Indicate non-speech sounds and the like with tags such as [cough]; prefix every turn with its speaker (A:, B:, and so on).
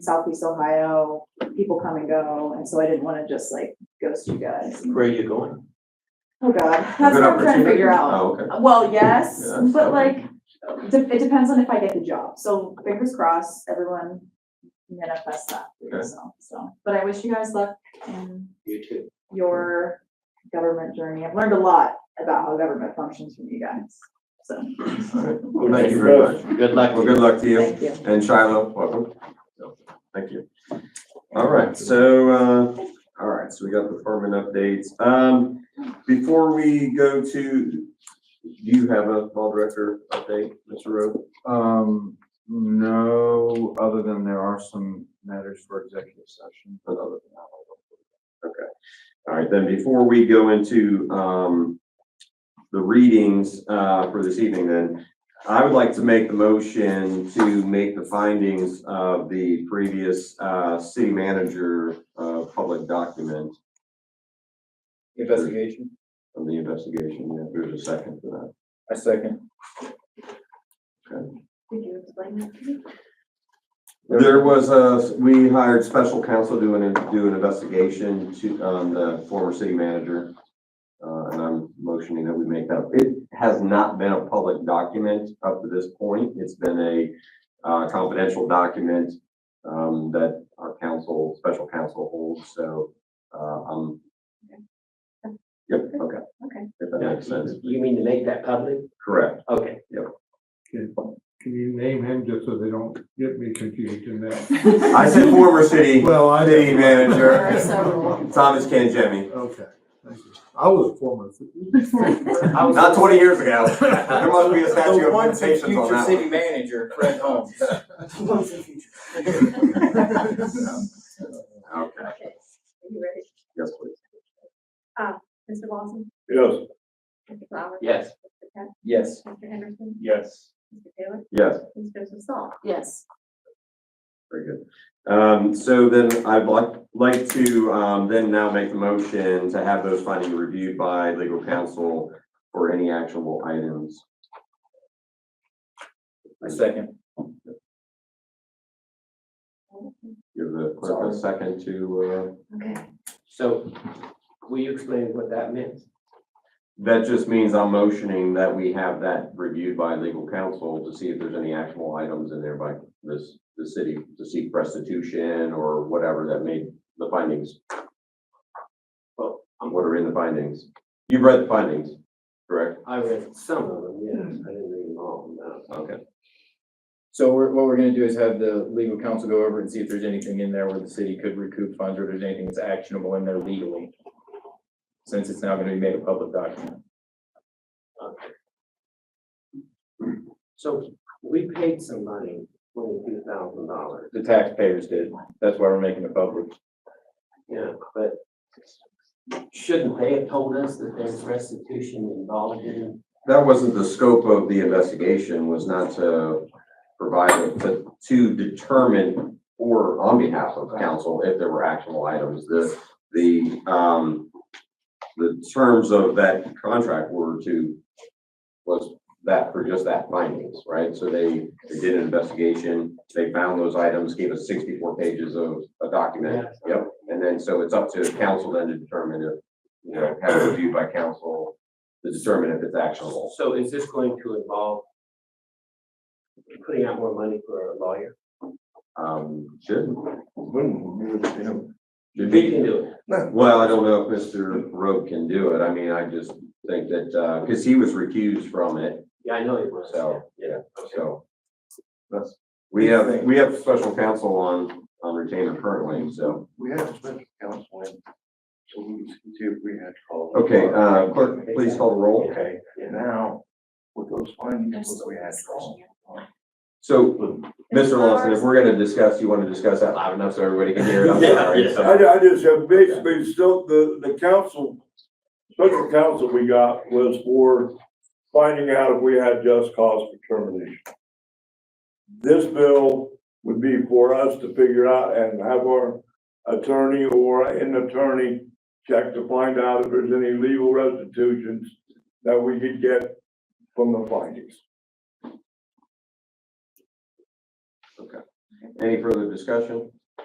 A: Southeast Ohio, people come and go, and so I didn't wanna just like ghost you guys.
B: Where are you going?
A: Oh, God, that's what I'm trying to figure out.
B: Oh, okay.
A: Well, yes,
B: Yeah, that's
A: but
B: fine.
A: like, de- it depends on if I get the job, so fingers crossed, everyone manifest that for
B: Okay.
A: yourself, so. But I wish you guys luck in
B: You too.
A: your government journey. I've learned a lot about how government functions from you guys, so,
B: Well, thank you very much.
C: Good luck.
B: Well, good luck to you
A: thank you.
B: and Shiloh, welcome. So, Thank you. All right, so, uh, all right, so we got the department updates. Um, before we go to, do you have a ball director update, Mr. Rowe?
D: Um, no, other than there are some matters for executive session, but other than that, I don't.
B: All right, then before we go into, um, the readings, uh, for this evening then, I would like to make the motion to make the findings of the previous, uh, city manager, uh, public document
D: Investigation,
B: of the investigation. If there's a second for
D: I second.
A: Could you explain that to me?
B: that. There was a, we hired special counsel to do an, do an investigation to, on the former city manager. Uh, and I'm motioning that we make that. It has not been a public document up to this point. It's been a uh, confidential document um, that our council, special counsel holds, so, uh, um. Yep, okay.
A: Okay.
B: If that makes sense.
C: You mean to make that public?
B: Correct.
C: Okay.
E: Can you name him just so they don't get me confused in that?
B: I said
A: [laughs]
B: former city,
E: Well, I
B: city
A: There are
B: manager,
A: several.
B: Thomas Canjemi.
E: Okay, thank you. I was a former.
B: [laughs] Not twenty years ago. There must be a statute of limitations on that one.
D: manager, Fred Holmes.
B: Okay,
F: Okay, are you ready?
B: yes, please.
F: Mr. Lawson?
D: Yes.
F: Mr. Flowers?
C: Yes.
F: Mr. Peck?
D: Yes.
F: Mr. Henderson?
D: Yes.
F: Mr. Taylor?
B: Yes,
F: Mr. Joseph Saul?
A: Yes,
B: very good. Um, so then I'd like, like to, um, then now make the motion to have those findings reviewed by legal counsel for any actionable items.
D: I second.
B: Give the clerk a second to, uh,
F: Okay.
C: So will you explain what that meant?
B: that just means I'm motioning that we have that reviewed by legal counsel to see if there's any actionable items in there by this, the city to seek restitution or whatever that made the findings
C: Well,
B: Um, What are in the findings? You've read the findings, correct?
C: I read some of them, yes. I didn't read them all, no.
B: Okay.
D: So we're, what we're gonna do is have the legal counsel go over and see if there's anything in there where the city could recoup funds or if there's anything that's actionable in there legally. Since it's now gonna be made a public document.
C: So we paid some money, twenty-two thousand dollars.
D: The taxpayers did. That's why we're making it public.
C: Yeah, but shouldn't they have told us that there's restitution involved in
B: That wasn't the scope of the investigation, was not to provide, to, to determine or on behalf of council if there were actionable items. The, the, um, the terms of that contract were to, was that for just that findings, right? So they, they did an investigation, they found those items, gave us sixty-four pages of a document.
C: that?
B: Yep. And then, so it's up to council then to determine if, you know, have it reviewed by council to determine if it's actionable.
C: So is this going to involve putting out more money for a lawyer?
B: Um, should,
C: We
B: should be.
C: can do it.
B: Well, I don't know if Mr. Rowe can do it. I mean, I just think that, uh, because he was recused from it,
C: Yeah, I know it was.
B: So,
C: Yeah.
B: so. That's, we have, we have special counsel on, on retainer currently, so.
G: We have a special counsel in, so we can see if we had called.
B: Okay, uh, clerk, please call the roll.
G: Okay, now, with those findings, what we had called.
B: So, Mr. Lawson, if we're gonna discuss, you wanna discuss that loud enough so everybody can hear it? I'm
G: [laughs]
B: sorry.
H: I,
B: so-
H: I just, have basically, still, the, the council, special counsel we got was for finding out if we had just cause for termination. This bill would be for us to figure out and have our attorney or an attorney check to find out if there's any legal restitutions that we could get from the findings.
B: Any further discussion?